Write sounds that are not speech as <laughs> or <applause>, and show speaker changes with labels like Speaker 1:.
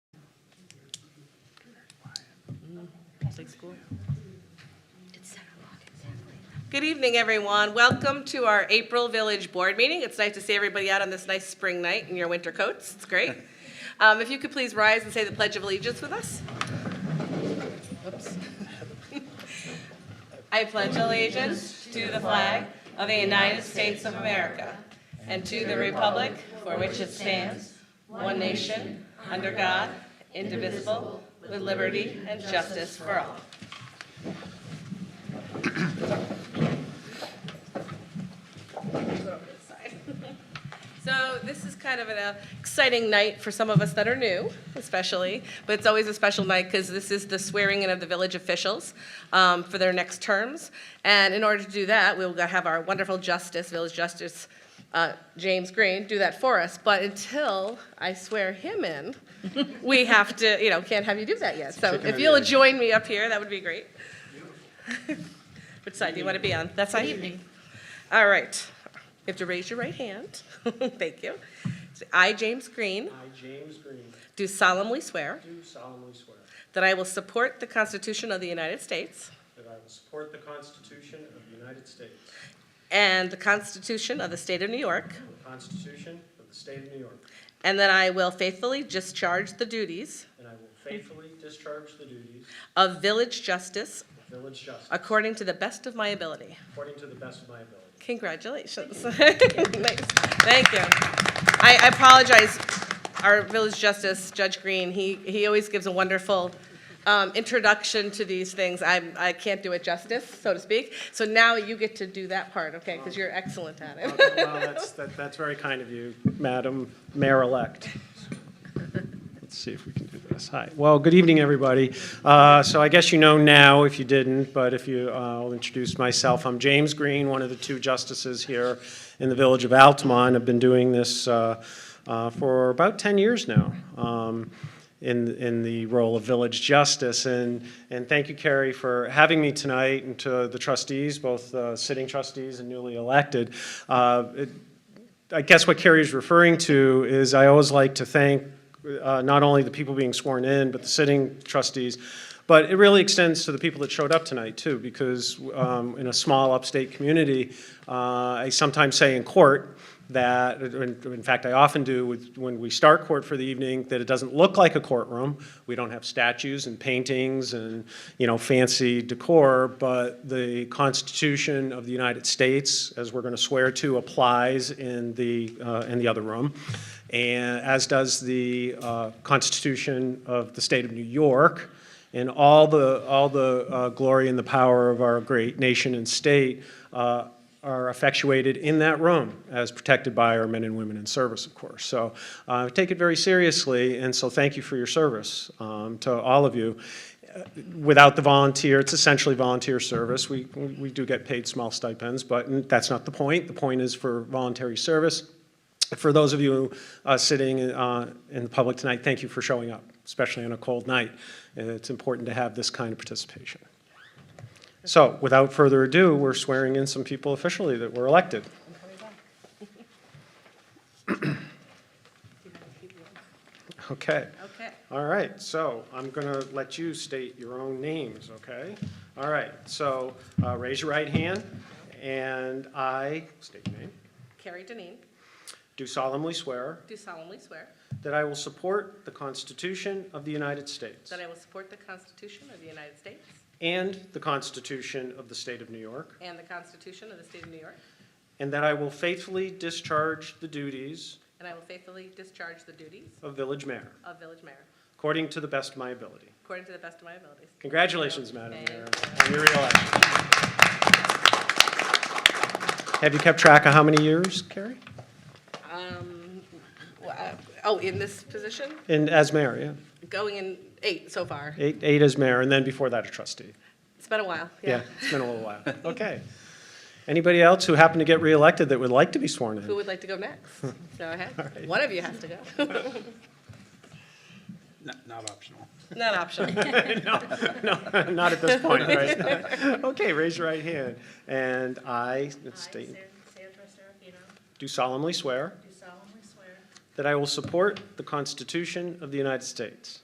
Speaker 1: State School. It's seven o'clock, exactly. Good evening, everyone. Welcome to our April Village Board meeting. It's nice to see everybody out on this nice spring night in your winter coats. It's great. Um, If you could please rise and say the Pledge of Allegiance with us. Oops. <laughs> I pledge allegiance to the flag of the United States of America and to the republic for which it stands, one nation, under God, indivisible, with liberty and justice for all. So this is kind of an uh, exciting night for some of us that are new, especially, but it's always a special night because this is the swearing in of the village officials um, for their next terms. And in order to do that, we'll have our wonderful justice, village justice, uh, James Green, do that for us. But until I swear him in, we have to, you know, can't have you do that yet. So
Speaker 2: Chicken or
Speaker 1: if
Speaker 2: the
Speaker 1: you'll
Speaker 2: egg?
Speaker 1: join me up here, that would be great. Which side do you want to be on? That side? evening. All right. You have to raise your right hand. <laughs> Thank you. I, James Green,
Speaker 3: I, James Green,
Speaker 1: do solemnly swear
Speaker 3: do solemnly swear
Speaker 1: that I will support the Constitution of the United States
Speaker 3: that I will support the Constitution of the United States
Speaker 1: and the Constitution of the State of New York,
Speaker 3: and the Constitution of the State of New York,
Speaker 1: and that I will faithfully discharge the duties
Speaker 3: and I will faithfully discharge the duties
Speaker 1: of village justice
Speaker 3: of village justice
Speaker 1: according to the best of my ability.
Speaker 3: according to the best of my ability.
Speaker 1: Congratulations. <laughs> Nice. Thank you. I I apologize, our village justice, Judge Green, he, he always gives a wonderful um, introduction to these things. I'm, I can't do it justice, so to speak. So now you get to do that part, okay? Because you're excellent at it.
Speaker 3: Well, that's, that- that's very kind of you, Madam Mayor-elect. Let's see if we can do this. Hi. Well, good evening, everybody. Uh, So I guess you know now, if you didn't, but if you, uh, I'll introduce myself. I'm James Green, one of the two justices here in the village of Altamont. I've been doing this uh, uh, for about 10 years now. Um, in, in the role of village justice. And, and thank you, Carrie, for having me tonight, and to the trustees, both uh, sitting trustees and newly elected. Uh, it- I guess what Carrie is referring to is I always like to thank uh, not only the people being sworn in, but the sitting trustees, but it really extends to the people that showed up tonight, too, because um, in a small upstate community, uh, I sometimes say in court, that, in in fact, I often do with, when we start court for the evening, that it doesn't look like a courtroom. We don't have statues and paintings and, you know, fancy decor, but the Constitution of the United States, as we're going to swear to, applies in the, uh, in the other room, and, as does the uh, Constitution of the State of New York, and all the, all the uh, glory and the power of our great nation and state uh, are effectuated in that room, as protected by our men and women in service, of course. So uh, I take it very seriously, and so thank you for your service um, to all of you. Uh, Without the volunteer, it's essentially volunteer service. We, we do get paid small stipends, but that's not the point. The point is for voluntary service. For those of you uh, sitting uh, in the public tonight, thank you for showing up, especially on a cold night. Uh, It's important to have this kind of participation. So without further ado, we're swearing in some people officially that were elected. Okay,
Speaker 1: Okay.
Speaker 3: all right, so I'm going to let you state your own names, okay? All right, so uh, raise your right hand, and I, state your name,
Speaker 1: Carrie Denine,
Speaker 3: do solemnly swear
Speaker 1: do solemnly swear
Speaker 3: That I will support the Constitution of the United States
Speaker 1: that I will support the Constitution of the United States
Speaker 3: and the Constitution of the State of New York,
Speaker 1: and the Constitution of the State of New York,
Speaker 3: and that I will faithfully discharge the duties
Speaker 1: and I will faithfully discharge the duties
Speaker 3: of village mayor
Speaker 1: of village mayor
Speaker 3: according to the best of my ability.
Speaker 1: according to the best of my abilities.
Speaker 3: Congratulations, Madam
Speaker 1: Thank
Speaker 3: Mayor,
Speaker 1: you.
Speaker 3: on your reelection. Have you kept track of how many years, Carrie?
Speaker 1: Um, well, I- Oh, in this position?
Speaker 3: And as mayor, yeah.
Speaker 1: Going in eight so far.
Speaker 3: Eight, eight as mayor, and then before that a trustee.
Speaker 1: It's been a while,
Speaker 3: Yeah,
Speaker 1: yeah.
Speaker 3: it's been a little while. Okay. Anybody else who happened to get reelected that would like to be sworn in?
Speaker 1: Who would like to go next? Go ahead.
Speaker 3: right.
Speaker 1: One of you has to go. <laughs>
Speaker 2: Not, not optional.
Speaker 1: Not optional.
Speaker 3: No, <laughs> not at this point, right? Okay, raise your right hand. And I
Speaker 4: I,
Speaker 3: state-
Speaker 4: Sandra Serafino,
Speaker 3: do solemnly swear
Speaker 4: do solemnly swear
Speaker 3: that I will support the Constitution of the United States